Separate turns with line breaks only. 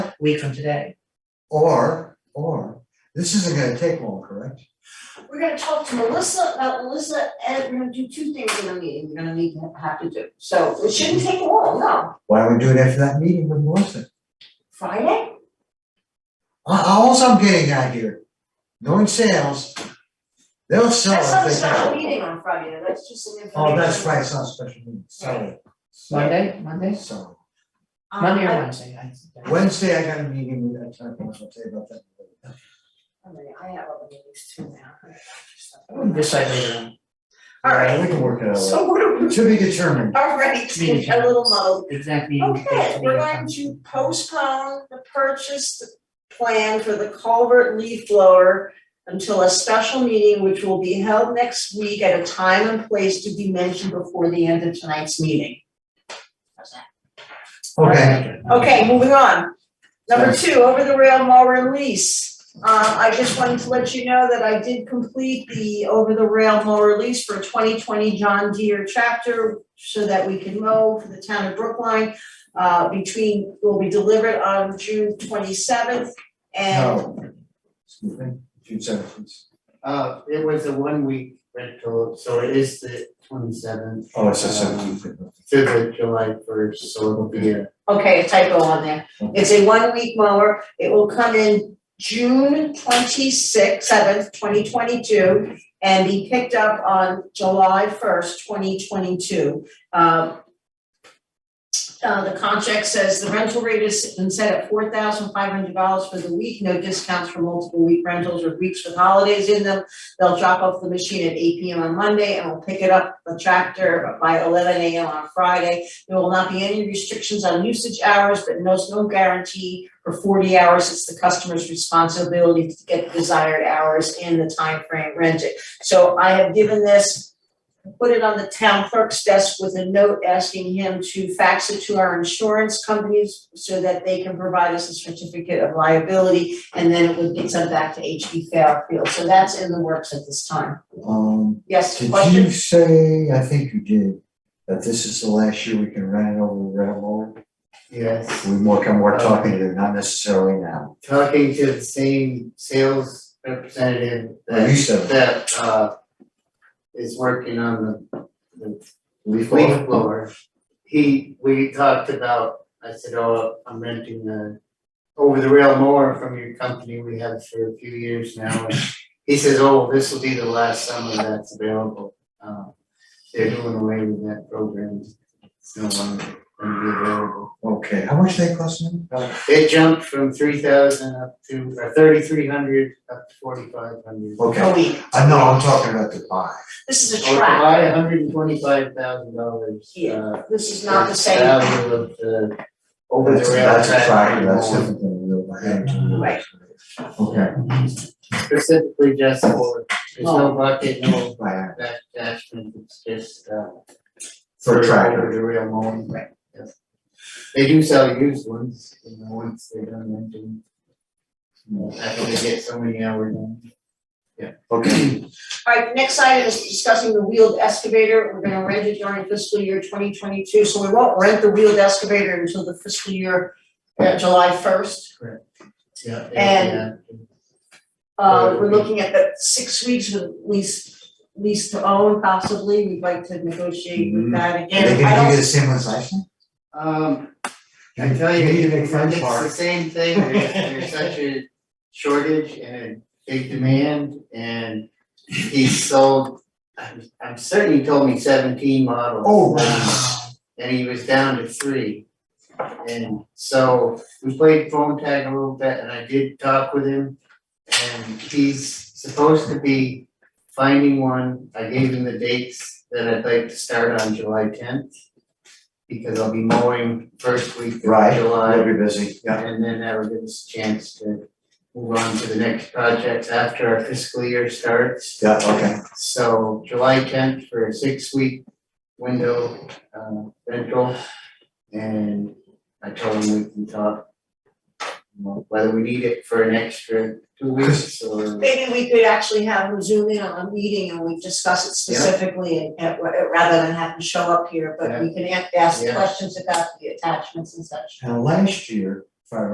week from today.
Or, or, this isn't gonna take long, correct?
We're gonna talk to Melissa about Melissa, and we're gonna do two things in the meeting, we're gonna need to have to do, so it shouldn't take long, no,
Why don't we do it after that meeting with Melissa?
Friday?
I, I, also I'm getting out here, knowing sales, they'll sell
That's not a
if they
special
can.
meeting on Friday, that's just an information.
Oh, that's right, it's not a special meeting, sorry.
Monday, Monday,
Sorry.
Um,
Monday or
I-
Wednesday, I think.
Wednesday, I got a meeting with that type of, I'll tell you about that. later.
I mean, I have other meetings too now.
Decide later on.
All right.
We can work it out,
So what are we,
to be determined.
all right, a little muddled.
Exactly.
Okay, we're going to postpone the purchase the plan for the culvert leaf blower until a special meeting, which will be held next week at a time and place to be mentioned before the end of tonight's meeting.
Okay,
Okay, moving on. Number two, over the rail mall release. Uh, I just wanted to let you know that I did complete the over the rail mall release for twenty twenty John Deere tractor so that we can mow for the town of Brookline. Uh, between, will be delivered on June twenty seventh and
no. Excuse me, June seventh.
Uh, it was a one week rental, so it is the twenty seventh.
Oh, it's the seventeenth.
To the July first, so it'll be a,
Okay, typo on there. It's a one-week mower. It will come in June twenty-sixth, seventh, twenty twenty-two, and be picked up on July first, twenty twenty-two. Um, uh, the contract says the rental rate is been set at four thousand five hundred dollars for the week, no discounts for multiple week rentals or weeks with holidays in them. They'll drop off the machine at eight P M on Monday and will pick it up, the tractor, by eleven A M on Friday. There will not be any restrictions on usage hours, but no, no guarantee for forty hours. It's the customer's responsibility to get desired hours in the time frame rented. So I have given this, put it on the town clerk's desk with a note asking him to fax it to our insurance companies so that they can provide us a certificate of liability, and then it would be sent back to HB Fairfield. So that's in the works at this time.
Um,
Yes,
did
question?
you say, I think you did, that this is the last year we can rent it over the railroad?
yes,
We more can more talking to, not necessarily now.
talking to the same sales representative
Well,
that
you said
that uh. Is working on the the
leaf blower.
leaf blower. He, we talked about, I said, oh, I'm renting a over the rail mower from your company, we have for a few years now. And He says, oh, this will be the last summer that's available. Uh, They're doing away with that program, it's no longer gonna be available.
Okay, how much they cost them?
It jumped from three thousand up to, or thirty-three hundred up to forty-five hundred.
Okay,
A week.
I know, I'm talking about the buy.
This is a
Or to
trap.
buy hundred and twenty-five thousand dollars. uh,
Yeah. This is not the same.
Value of the over
That's a-
Oh, the rail
That's a tractor,
track.
that's different than the little hand.
Right.
Okay.
Specifically just for, there's
Oh.
no bucket, no
Right,
back attachment, it's just uh.
For tractor.
Over the rail mowing.
Right.
Yes. They do sell used ones, you know, once they're done renting. After they get so many hours in.
Okay,
Alright, next item is discussing the wheeled excavator, we're gonna rent it during fiscal year twenty twenty-two, so we won't rent the wheeled excavator until the fiscal year, uh, July first.
Yeah.
And-
yeah.
Uh, we're looking at the six weeks with lease, lease to own possibly, we'd like to negotiate
Mm-hmm.
with that
are they
again, I
gonna do
don't,
the same as last one?
Um, I tell you,
need to make
it's
French
the
park.
same thing, there's there's such a shortage and a big demand and he sold, I'm I'm certain he told me seventeen models.
Oh,
Um,
wow.
and he was down to three. And so we played phone tag a little bit and I did talk with him. And he's supposed to be finding one, I gave him the dates that I'd like to start on July tenth. Because I'll be mowing first week of
Right.
July,
They'll be busy, yeah.
and then that'll give us a chance to move on to the next project after our fiscal year starts.
Yeah, okay,
So July tenth for a six week window uh rental. And I told him we can talk. you know, Whether we need it for an extra two weeks or.
maybe we could actually have him zoom in on a meeting and we discuss it
Yeah.
specifically and, and what- rather than have him show up here, but we can a- ask
Yeah.
questions about the attachments and such.
and last year, if I